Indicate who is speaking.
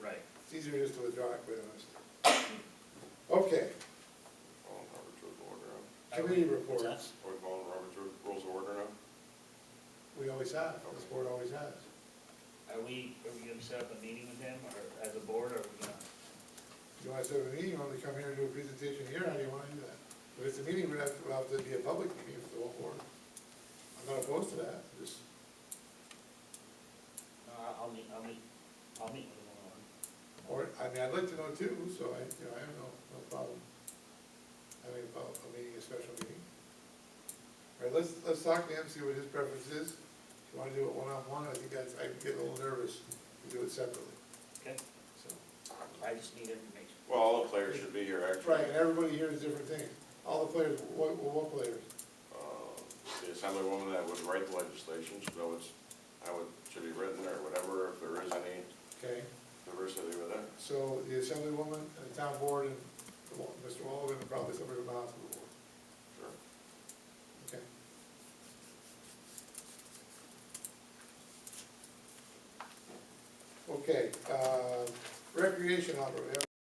Speaker 1: easier just to withdraw it, quite honestly. Okay,
Speaker 2: Following Robert's Rules of Order now?
Speaker 1: committee
Speaker 3: What's
Speaker 1: reports,
Speaker 3: that?
Speaker 2: Are we following Robert's Ru- Rules of Order now?
Speaker 1: we always have, this board always has.
Speaker 3: Are we, are we gonna set up a meeting with them, or as a board, or are we gonna?
Speaker 1: You want to have a meeting, you want to come here and do a presentation here, how do you want to do that? But if it's a meeting, we'd have to, we'll have to be a public meeting for the whole board. I'm not opposed to that, just,
Speaker 3: No, I'll meet, I'll meet, I'll meet with them on.
Speaker 1: or, I mean, I'd like to know too, so I, you know, I have no, no problem having a, pub- a meeting, a special meeting. All right, let's, let's talk to him, see what his preference is. If you want to do it one-on-one, I think that's, I get a little nervous to do it separately,
Speaker 3: Okay,
Speaker 1: so.
Speaker 3: I just need information.
Speaker 2: Well, all the players should be here, actually.
Speaker 1: Right, and everybody here is different things. All the players, what, what players?
Speaker 2: Uh, The Assemblywoman that would write the legislation, should know it's, how it should be written or whatever, if there is any
Speaker 1: Okay?
Speaker 2: diversity with it.
Speaker 1: So the assemblywoman, and the town board, and the wa- Mr. Walden, and probably somebody from the house of the board,
Speaker 2: Sure.
Speaker 1: okay? Okay, uh, recreation operator,